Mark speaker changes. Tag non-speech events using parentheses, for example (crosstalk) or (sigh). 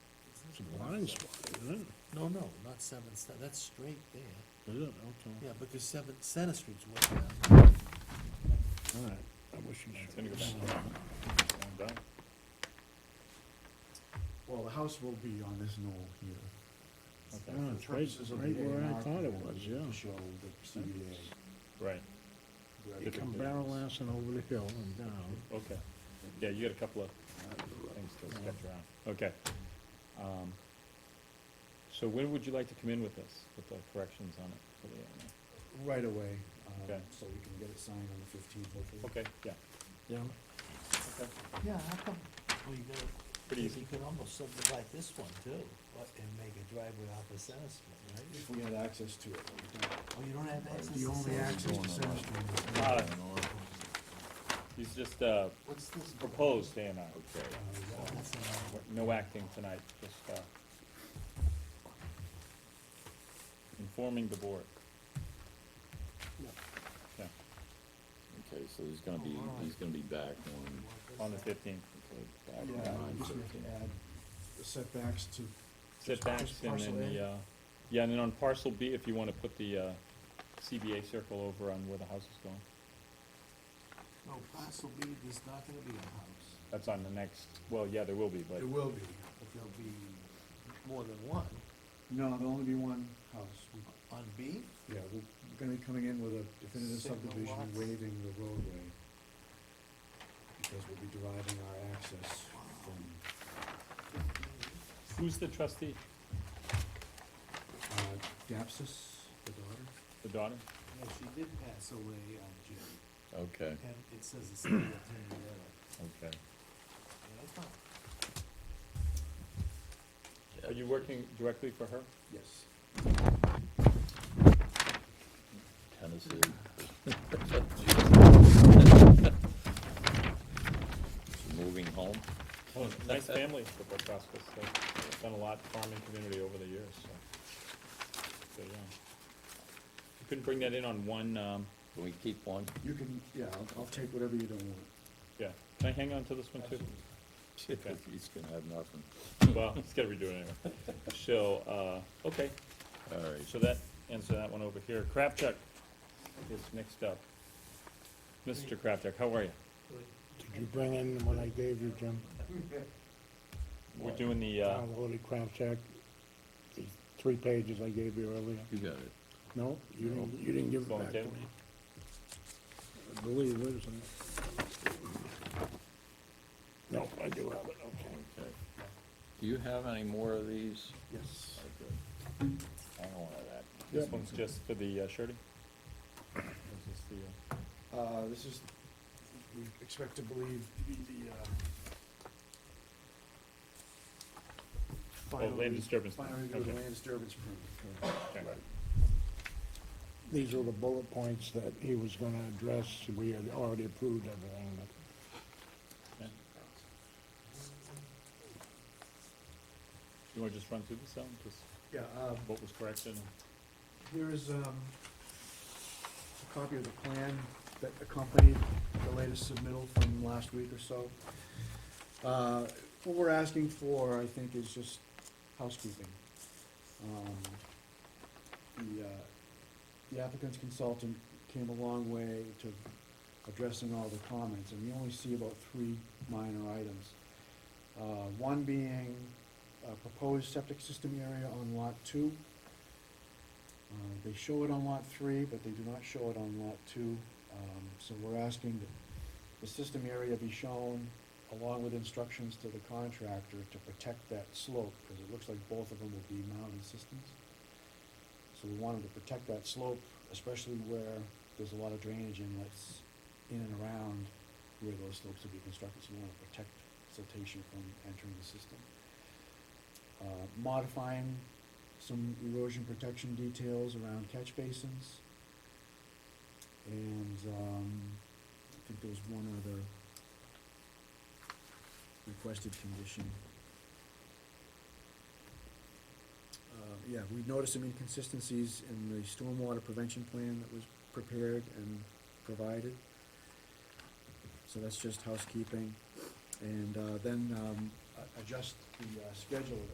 Speaker 1: It's a blind spot, isn't
Speaker 2: No, no, not Seventh, Cen- that's straight there.
Speaker 1: it? Is it? Okay.
Speaker 2: Yeah, because Seventh, Center Street's way down.
Speaker 1: All right. I wish you
Speaker 3: It's
Speaker 1: should.
Speaker 3: gonna go back. Going back.
Speaker 4: Well, the house will be on this knoll here.
Speaker 3: Okay,
Speaker 1: Yeah, it's right,
Speaker 4: Purposes of
Speaker 1: right
Speaker 4: the
Speaker 1: where I
Speaker 4: A&R
Speaker 1: thought it
Speaker 4: plan
Speaker 1: was,
Speaker 4: is to
Speaker 1: yeah.
Speaker 4: Show the CBA.
Speaker 3: Right,
Speaker 4: where
Speaker 1: You
Speaker 4: the
Speaker 1: come
Speaker 4: building
Speaker 1: barrel
Speaker 4: is.
Speaker 1: assing over the hill and down.
Speaker 3: okay. Yeah, you got a couple of things to sketch around. Okay. Um, So when would you like to come in with this, with the corrections on it? for the-
Speaker 4: Right away, um,
Speaker 3: Okay.
Speaker 4: so we can get it signed on the fifteenth, hopefully.
Speaker 3: Okay, yeah,
Speaker 1: Yeah.
Speaker 3: okay,
Speaker 2: Yeah, how come, well, you gotta,
Speaker 3: pretty easy.
Speaker 2: you could almost subdivide this one too, but, and make a driveway off of Center Street, right?
Speaker 4: If we had access to it. but we don't.
Speaker 2: Oh, you don't have access to
Speaker 4: The only
Speaker 2: Center
Speaker 4: access
Speaker 2: Street?
Speaker 4: to Center Street is
Speaker 3: Uh, He's just, uh,
Speaker 2: What's this?
Speaker 3: proposed A and R.
Speaker 2: Oh, that's an R.
Speaker 3: No acting tonight, just, uh, informing the board. Yeah,
Speaker 5: Okay, so he's gonna be, he's gonna be back on,
Speaker 3: on the fifteenth.
Speaker 5: back
Speaker 4: Yeah,
Speaker 5: on
Speaker 4: we just need
Speaker 5: 9/13.
Speaker 4: to add the setbacks to.
Speaker 3: setbacks
Speaker 4: Just
Speaker 3: and
Speaker 4: parcel
Speaker 3: then the, uh, yeah, and then on parcel B, if you wanna put the, uh, CBA circle over on where the house is going.
Speaker 2: No, parcel B, there's not gonna be a house.
Speaker 3: That's on the next, well, yeah, there will be, but,
Speaker 4: There will be,
Speaker 2: But there'll be more than one.
Speaker 4: no, there'll only be one house. We-
Speaker 2: On B?
Speaker 4: Yeah, we're gonna be coming in with a definitive
Speaker 2: Signal
Speaker 4: subdivision
Speaker 2: lots.
Speaker 4: waiving the roadway. Because we'll be deriving our access from,
Speaker 3: who's the trustee?
Speaker 4: uh, Dapsus, the daughter.
Speaker 3: The daughter?
Speaker 2: Yeah, she did pass away on June,
Speaker 5: Okay,
Speaker 2: and it says the city attorney letter.
Speaker 5: okay.
Speaker 2: Yeah, that's fine.
Speaker 3: Are you working directly for her?
Speaker 4: Yes.
Speaker 5: Tennessee. Moving home?
Speaker 3: Oh, nice family, the Prokopis, they've done a lot farming community over the years, so. So, yeah. You couldn't bring that in on one, um,
Speaker 5: Can we keep one? (laughs)
Speaker 4: You can, yeah, I'll, I'll take whatever you don't want.
Speaker 3: yeah, can I hang on to this one too?
Speaker 5: He's gonna have nothing.
Speaker 3: Well, it's gotta be doing it anyway. So, uh, okay,
Speaker 5: All right,
Speaker 3: so that, answer that one over here. Kraftuck is next up. Mr. Kraftuck, how are you?
Speaker 1: Did you bring in the one I gave you, Jim?
Speaker 3: We're doing the, uh,
Speaker 1: Town Holy Crown Check? The three pages I gave you earlier?
Speaker 5: you got it.
Speaker 1: No, you didn't, you didn't give it
Speaker 3: Going
Speaker 1: back to
Speaker 3: down?
Speaker 1: me. I believe it is. No, I do have it, okay.
Speaker 5: Okay. Do you have any more of these?
Speaker 4: Yes.
Speaker 5: I don't want that.
Speaker 3: this one's just for the uh, surety? This is the, uh,
Speaker 4: Uh, this is, we expect to believe to be the, uh,
Speaker 3: Oh,
Speaker 4: final
Speaker 3: land
Speaker 4: re-
Speaker 3: disturbance.
Speaker 4: Final review of the land disturbance permit. correct.
Speaker 3: Okay.
Speaker 1: These are the bullet points that he was gonna address, we had already approved everything, but.
Speaker 3: Okay. You wanna just run through this, Alan, just
Speaker 4: Yeah, um,
Speaker 3: what was corrected?
Speaker 4: Here is um, a copy of the plan that accompanied the latest submittal from last week or so. Uh, What we're asking for, I think, is just housekeeping. Um, The uh, the applicant's consultant came a long way to addressing all the comments, and we only see about three minor items. Uh, One being a proposed septic system area on lot two. Uh, They show it on lot three, but they do not show it on lot two. Um, So we're asking that the system area be shown along with instructions to the contractor to protect that slope, because it looks like both of them will be mounted systems. So we wanted to protect that slope, especially where there's a lot of drainage inlets in and around where those slopes will be constructed, so we want to protect siltation from entering the system. Uh, Modifying some erosion protection details around catch basins. And, um, I think there was one other requested condition. Uh, yeah, we noticed some inconsistencies in the stormwater prevention plan that was prepared and provided. So that's just housekeeping. And, uh, then, um, a- adjust the, uh, schedule